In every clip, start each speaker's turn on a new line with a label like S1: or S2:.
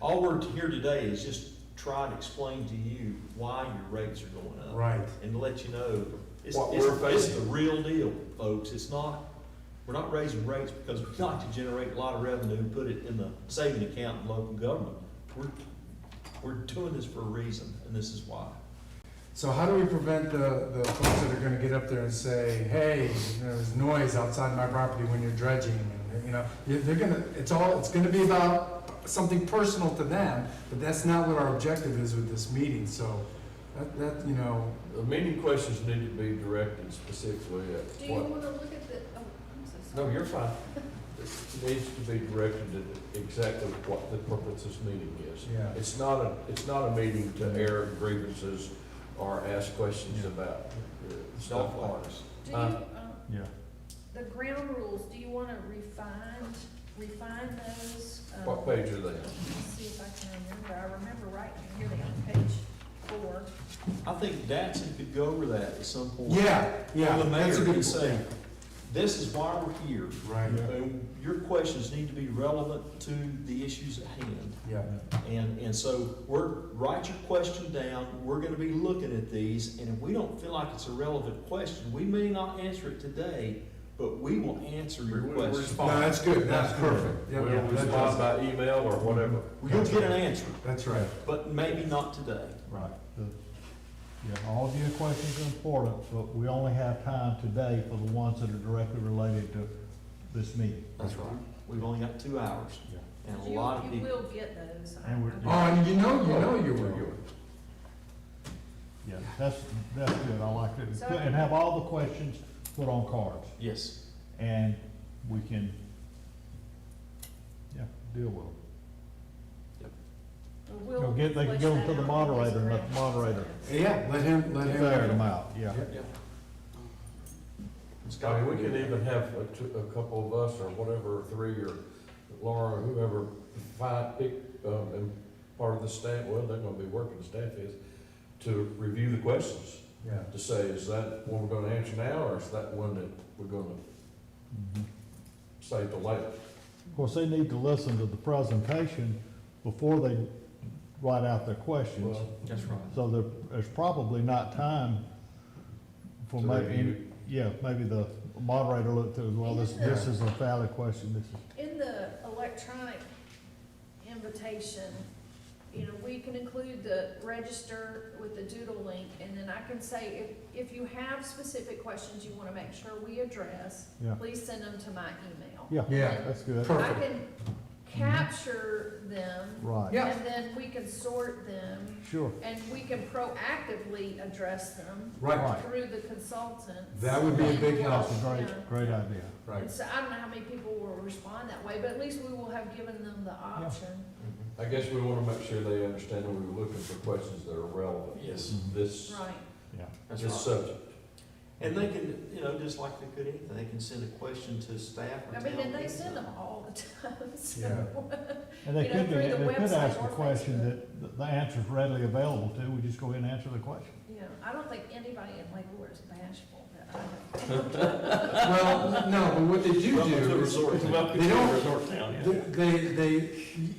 S1: all we're here today is just try to explain to you why your rates are going up.
S2: Right.
S1: And to let you know, it's,
S3: What
S1: it's,
S3: we're
S1: it's the
S3: facing.
S1: real deal, folks, it's not, we're not raising rates because we like to generate a lot of revenue and put it in the saving account in local government. We're, we're doing this for a reason, and this is why.
S2: So how do we prevent the, the folks that are gonna get up there and say, hey, you know, there's noise outside my property when you're dredging? And, you know, you- they're gonna, it's all, it's gonna be about something personal to them, but that's not what our objective is with this meeting, so that, that, you know,
S3: The meeting questions need to be directed specifically
S4: Do
S3: at
S4: you
S3: what,
S4: want to look at the, oh, I'm so sorry.
S3: no, you're fine. It needs to be directed at exactly what the purpose of this meeting is.
S2: yeah.
S3: It's not a, it's not a meeting to air grievances or ask questions about uh, stuff like that.
S4: Do you,
S3: Uh,
S4: um,
S1: Yeah.
S4: the ground rules, do you want to refine, refine those? Um,
S3: What page are they on?
S4: Let me see if I can remember. I remember right here, they on page four.
S1: I think Datsun could go over that at some point.
S2: Yeah, yeah,
S1: The mayor
S2: that's a good
S1: could
S2: point.
S1: say, this is why we're here.
S2: Right,
S1: And Your questions need to be relevant to the issues at hand.
S2: yeah,
S1: And, and so we're, write your question down, we're gonna be looking at these, and if we don't feel like it's a relevant question, we may not answer it today, but we will answer your
S3: We will
S1: question.
S3: respond.
S2: no, Oh, that's good, that's perfect.
S3: We'll
S2: Yep, yep, that
S3: respond
S2: does-
S3: by email or whatever.
S1: You'll get an answer,
S2: That's right.
S1: but maybe not today.
S5: Right. The- Yeah, all of your questions are important, but we only have time today for the ones that are directly related to this meeting.
S1: That's right. We've only got two hours,
S5: Yeah.
S1: and a
S4: You-
S1: lot of
S4: You
S1: people,
S4: will get those. I-
S5: And we're-
S4: I'm-
S2: Oh, and you know, you know you will.
S5: Yeah, that's, that's good, I like it.
S4: So-
S5: And have all the questions put on cards,
S1: yes,
S5: and we can, yeah, deal with them.
S4: We'll
S5: They'll get- they can
S4: flesh
S5: give them
S4: that
S5: to the
S4: out.
S5: moderator and let the moderator-
S2: Yeah, let him, let him.
S5: Ferret them out, yeah.
S1: yeah. It's
S3: I
S1: got-
S3: mean, Oh, we can even have a, two- a couple of us or whatever, three or Laura, or whoever, five, pick, um, and part of the staff, well, they're gonna be working, the staff is, to review the questions,
S2: Yeah.
S3: to say, is that one we're gonna answer now, or is that one that we're gonna
S5: Mhm.
S3: save till later?
S5: Of course, they need to listen to the presentation before they write out their questions.
S3: Well,
S1: That's right.
S5: So there, there's probably not time for
S3: To
S5: maybe,
S3: review.
S5: yeah, maybe the moderator looked through, well, this, this is a valid question, this is.
S4: In the electronic invitation, you know, we can include the register with the doodle link, and then I can say, if, if you have specific questions you wanna make sure we address,
S5: Yeah.
S4: please send them to my email.
S5: Yeah,
S2: Yeah.
S5: that's
S4: I
S5: good,
S2: Perfect.
S4: can capture them,
S5: right,
S2: Yeah.
S4: and then we can sort them,
S5: sure,
S4: and we can proactively address them
S2: Right,
S5: Right.
S4: through the consultants.
S2: That would be a big help.
S5: that's a
S4: Yeah.
S5: great, great idea.
S2: right.
S4: And so I don't know how many people will respond that way, but at least we will have given them the option.
S1: Mm-hmm.
S3: I guess we wanna make sure they understand that we're looking for questions that are relevant. to
S1: Yes.
S3: This,
S4: Right.
S5: Yeah,
S1: That's
S3: this
S1: right.
S3: subject.
S1: And they can, you know, just like they could anything, they can send a question to staff or
S4: I
S1: town.
S4: mean, and they
S1: meeting.
S4: send them all the time, so.
S5: and they
S4: You know,
S5: could, do
S4: through
S5: that.
S4: the
S5: they could
S4: website
S5: ask a
S4: or
S5: question
S4: Facebook.
S5: that th- the answer's readily available to, we just go ahead and answer the question.
S4: You know, I don't think anybody in Lake Lord is bashful, but I
S2: Well, no, but what they do do
S1: Welcome to
S2: is,
S1: resort town.
S2: they don't,
S1: Resort town, yeah.
S2: they, they,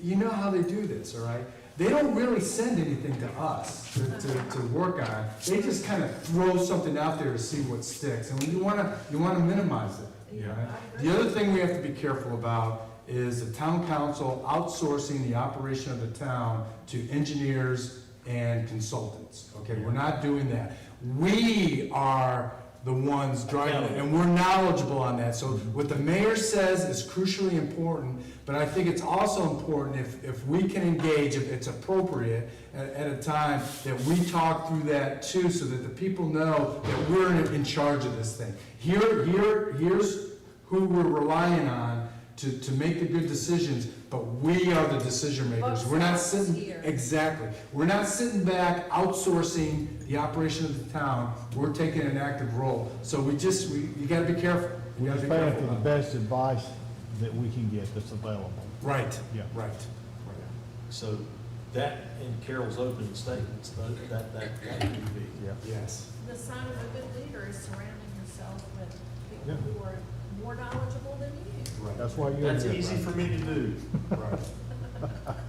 S2: you know how they do this, all right? They don't really send anything to us to, to, to work on. They just kind of throw something out there to see what sticks, and you wanna, you wanna minimize it.
S4: Yeah,
S2: all right?
S4: I agree.
S2: The other thing we have to be careful about is the town council outsourcing the operation of the town to engineers and consultants, okay? We're not doing that. We are the ones driving it, and we're knowledgeable on that. So what the mayor says is crucially important, but I think it's also important if, if we can engage, if it's appropriate, at, at a time, that we talk through that too, so that the people know that we're in, in charge of this thing. Here, here, here's who we're relying on to, to make the good decisions, but we are the decision makers. We're not sitting,
S4: Here.
S2: exactly, we're not sitting back outsourcing the operation of the town, we're taking an active role. So we just, we, you gotta be careful. You
S5: We're
S2: gotta be
S5: just
S2: careful.
S5: paying for the
S2: about that.
S5: best advice that we can get that's available.
S2: Right,
S5: Yeah.
S2: right.
S1: So that, in Carol's opening statements, tho- that, that, that would be.
S5: Yeah.
S2: Yes,
S4: the sign of a good leader is surrounding yourself with
S5: Yeah.
S4: people who are more knowledgeable than you.
S2: right,
S5: That's why you're here.
S1: That's easy
S5: right?
S1: for me to do.
S2: right.